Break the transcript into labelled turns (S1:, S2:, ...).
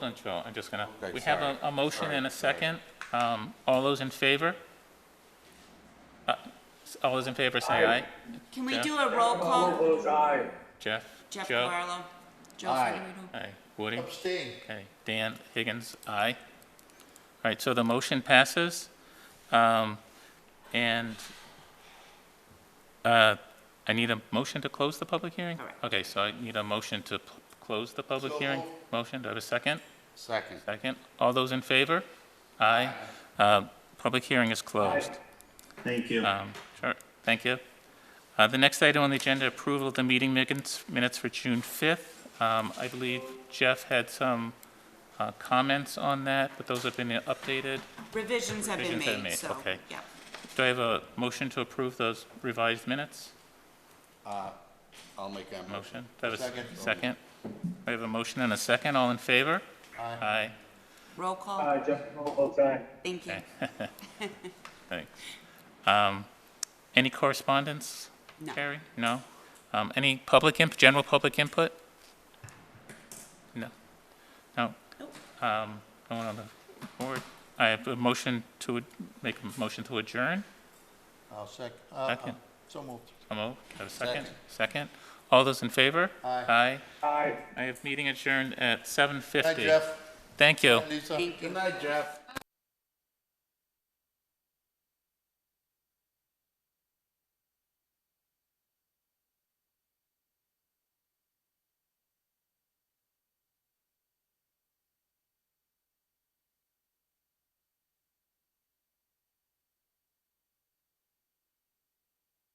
S1: Excellent, Joe. I'm just gonna,
S2: Okay,
S1: we have a,
S2: sorry.
S1: a motion
S2: Sorry,
S1: and a
S2: sorry.
S1: second. Um, all those in favor? Uh, s- All those in favor, say aye.
S3: Can we
S1: Jeff?
S3: do a roll
S4: All
S3: call?
S4: votes aye.
S1: Jeff?
S3: Jeff
S1: Joe?
S3: Barlow. Joe
S2: Aye.
S3: Federito.
S1: Aye. Woody?
S2: Abstain.
S1: Okay. Dan Higgins, aye. All right, so the motion passes. Um, and, uh, I need a motion to close the public hearing?
S3: Correct.
S1: Okay, so I need a motion to p- close the public hearing. Motion, do I have a second?
S2: Second.
S1: Second. All those in favor? Aye. Uh, Public hearing is closed.
S5: Thank you.
S1: Um, Sure, thank you. Uh, The next item on the agenda, approval of the meeting minutes minutes for June 5th. Um, I believe Jeff had some uh, comments on that, but those have been updated.
S3: Revisions have been
S1: Revisions have
S3: made,
S1: made,
S3: so,
S1: okay.
S3: yeah.
S1: Do I have a motion to approve those revised minutes?
S2: I'll make that motion.
S1: Motion? Do I have a s-
S2: Second.
S1: Second. I have a motion and a second. All in favor? Aye.
S3: Roll call,
S4: Aye, Jeff Morrow votes aye.
S3: thank you.
S1: Okay. Thanks. Um, Any correspondence?
S3: No.
S1: Carrie? No? Um, Any public imp, general public input? No? No?
S3: Nope.
S1: Um, No one on the board? I have a motion to, ad- make a motion to adjourn?
S2: I'll sec, uh, uh,
S1: Second.
S2: so moved.
S1: I'm over. Have a second?
S2: Second.
S1: Second? All those in favor?
S2: Aye.
S1: Aye.
S4: Aye.
S1: I have meeting adjourned at 7:50.
S2: Good night, Jeff.
S1: Thank you.
S2: Lisa.
S3: Thank you.
S2: Good night, Jeff.